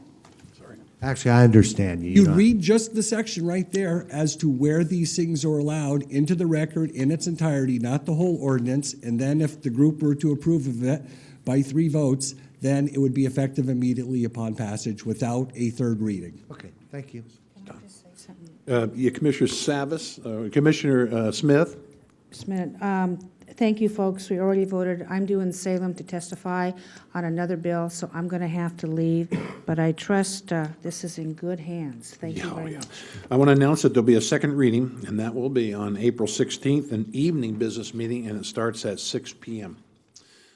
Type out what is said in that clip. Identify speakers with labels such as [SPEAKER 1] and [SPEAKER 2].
[SPEAKER 1] Actually, I understand you.
[SPEAKER 2] You
[SPEAKER 1] know.
[SPEAKER 2] read just the section right there as to where these things are allowed into the record in its entirety, not the whole ordinance. And then if the group were to approve of it by three votes, then it would be effective immediately upon passage without a third reading.
[SPEAKER 1] Okay, thank you.
[SPEAKER 3] Uh, yeah, Commissioner Savis, uh, Commissioner uh, Smith?
[SPEAKER 4] Just a minute. Um, Thank you, folks. We already voted. I'm due in Salem to testify on another bill, so I'm going to have to leave. But I trust uh, this is in good hands. Thank you
[SPEAKER 3] Oh,
[SPEAKER 4] very
[SPEAKER 3] yeah.
[SPEAKER 4] much.
[SPEAKER 3] I want to announce that there'll be a second reading, and that will be on April 16th, an evening business meeting, and it starts at 6 PM.